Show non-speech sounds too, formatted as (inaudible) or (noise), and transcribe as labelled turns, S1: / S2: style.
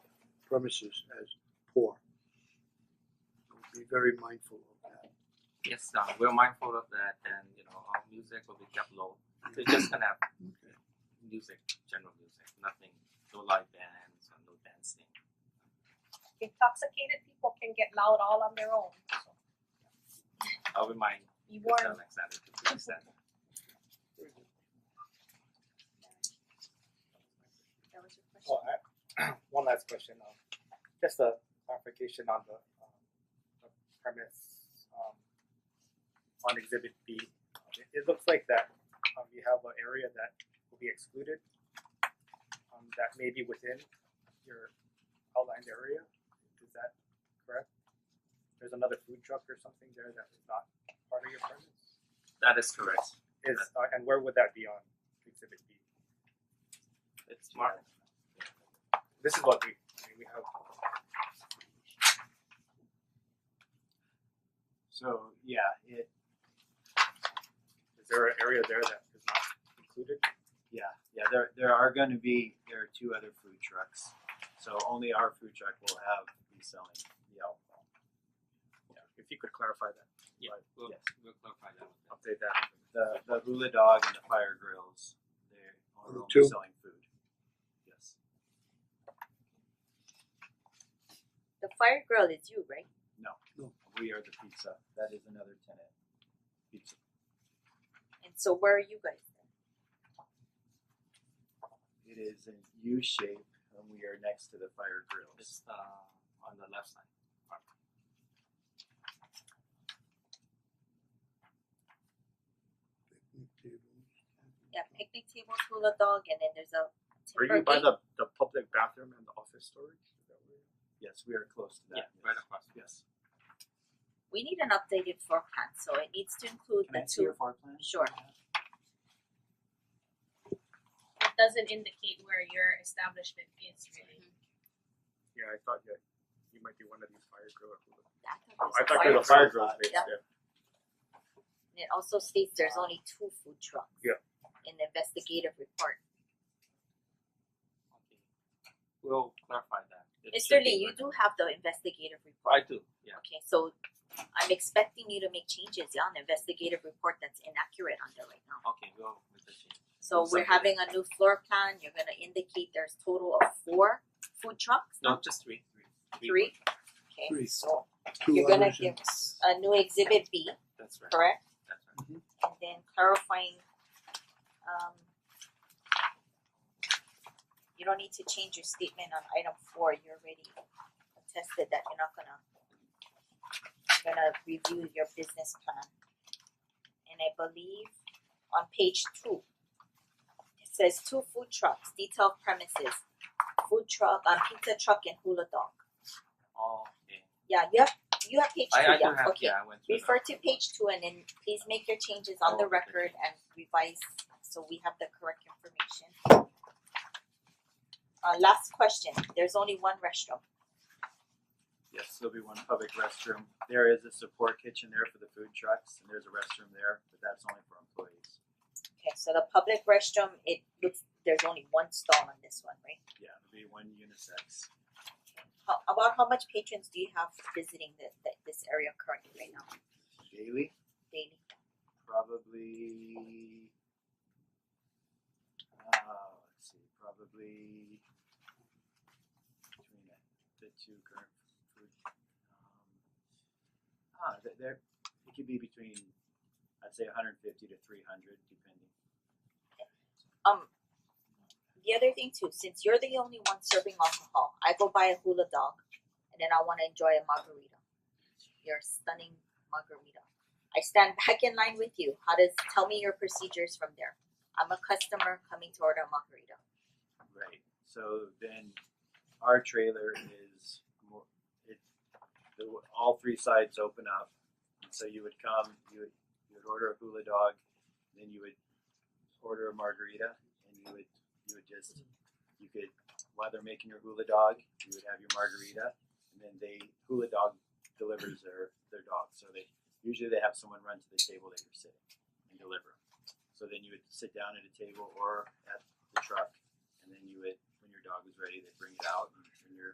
S1: premises as poor. So Be very mindful of that.
S2: Yes, uh, we're mindful of that, and you know, our music will be kept low. We're just (clears throat) gonna have
S1: Okay.
S2: music, general music, nothing, no live bands or no dancing.
S3: Intoxicated people can get loud all on their own. So
S2: I'll remind
S3: be
S2: Mr.
S3: warned.
S2: Alexander to fix that.
S3: That was your question.
S4: Well, Oh, I, (clears throat) one last question, um, just a clarification on the, um, the premise, um, on exhibit B. It, it looks like that, um, you have an area that will be excluded, um, that may be within your outlined area, is that correct? There's another food truck or something there that is not part of your premise?
S2: That is correct.
S4: Is, uh, and where would that be on exhibit B?
S2: It's marked.
S4: This is what we, I mean, we have So yeah, it is there an area there that is not included?
S5: Yeah, yeah, there there are gonna be, there are two other food trucks, so only our food truck will have be selling the alcohol.
S4: Yeah. If you could clarify that,
S2: Yeah, we'll,
S5: Yes.
S2: we'll clarify that. with them.
S4: update that.
S5: The the hula dog and the fire grills, they're
S1: Are the
S5: only
S1: two?
S5: selling food. Yes,
S6: The fire grill is you, right?
S5: we are the pizza, that is another tenant. Pizza,
S6: And so where are you guys then?
S5: it is in U shape and we are next to the fire grills.
S2: It's uh, on the left side.
S1: Picnic tables.
S6: Yeah, picnic tables, hula dog, and then there's a
S4: Are
S6: timber
S4: you by
S6: gate.
S4: the the public bathroom and the office storage? Is that where you-
S5: Yes, we are close to
S2: Yeah,
S5: that,
S2: right
S5: yes,
S2: across.
S5: yes.
S6: We need an updated floor plan, so it needs to include
S5: Can
S6: the
S5: I see your
S6: two.
S5: floor plan?
S6: Sure.
S3: It doesn't indicate where your establishment is really.
S4: Yeah, I thought you you might be one of these fire grill.
S6: I
S4: I thought
S6: there
S4: there
S6: was
S4: was
S6: a
S4: a
S6: fire
S4: fire
S6: grill.
S4: grill space
S6: Yeah.
S4: there.
S6: And It also states there's only two food trucks.
S4: Yeah.
S6: In the investigative report.
S2: Okay. We'll clarify that. It
S6: Mister
S2: should
S6: Lee,
S2: be
S6: you
S2: right.
S6: do have the investigative
S2: I
S6: report.
S2: do. Yeah.
S6: Okay, so I'm expecting you to make changes yeah, on the investigative report that's inaccurate on there right now.
S2: Okay. We'll make the change.
S6: So we're having a new floor plan, you're gonna indicate there's total of four food trucks,
S2: No, just three. Three.
S6: three?
S1: Three.
S6: Okay, so
S1: Two
S6: you're gonna
S1: others
S6: give
S1: and-
S6: s- a new exhibit B,
S2: That's right.
S6: correct?
S2: That's right.
S6: And then clarifying, um you don't need to change your statement on item four, you already attested that you're not gonna you're gonna review your business plan. And I believe on page two, it says two food trucks, detailed premises, food truck, uh pizza truck and hula dog.
S2: Okay.
S6: Yeah, you have you have page two,
S2: I, I do
S6: yeah,
S2: have.
S6: okay.
S2: Yeah, I went through.
S6: Refer
S2: that.
S6: to page two and then please make your changes on
S2: Oh,
S6: the
S2: okay.
S6: record and revise so we have the correct information. Uh last question, there's only one restroom,
S5: Yes, there'll be one public restroom. There is a support kitchen there for the food trucks and there's a restroom there, but that's only for employees.
S6: okay, so the public restroom, it looks, there's only one stall on this one, right?
S5: Yeah, it'll be one unisex.
S6: How about how much patrons do you have visiting the the this area currently right now
S5: Daily,
S6: daily?
S5: probably uh let's see, probably between the two current food um ah there there it could be between I'd say hundred and fifty to three hundred depending.
S6: Um the other thing too, since you're the only one serving alcohol, I go buy a hula dog and then I wanna enjoy a margarita. Your stunning margarita. I stand (laughs) back in line with you. How does tell me your procedures from there? I'm a customer coming to order a margarita.
S5: Right, so then our trailer is more, it, the, all three sides open up. And So you would come, you would, you would order a hula dog, then you would order a margarita and you would, you would just, you could, while they're making your hula dog, you would have your margarita. And then they, hula dog delivers their, their dog, so they, usually they have someone run to the table that you're sitting and deliver. 'em. So then you would sit down at a table or at the truck and then you would, when your dog was ready, they'd bring it out and